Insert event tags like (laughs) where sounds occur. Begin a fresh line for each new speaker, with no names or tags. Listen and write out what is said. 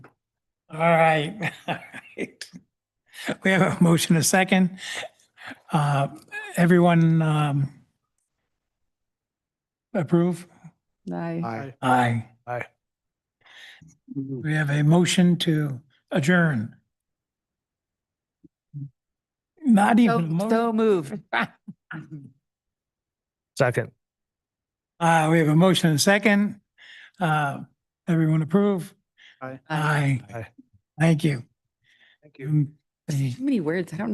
All right, (laughs) all right. We have a motion, a second. Uh, Everyone um approve?
Aye.
Aye.
Aye.
Aye.
We have a motion to adjourn. Not even. a mo-
So so (laughs) moved.
Second.
Uh, we have a motion and a second. Uh, everyone approve?
Aye.
Aye.
Aye.
Aye.
Thank you.
Thank
Mm, the-
Too many words. I don't know.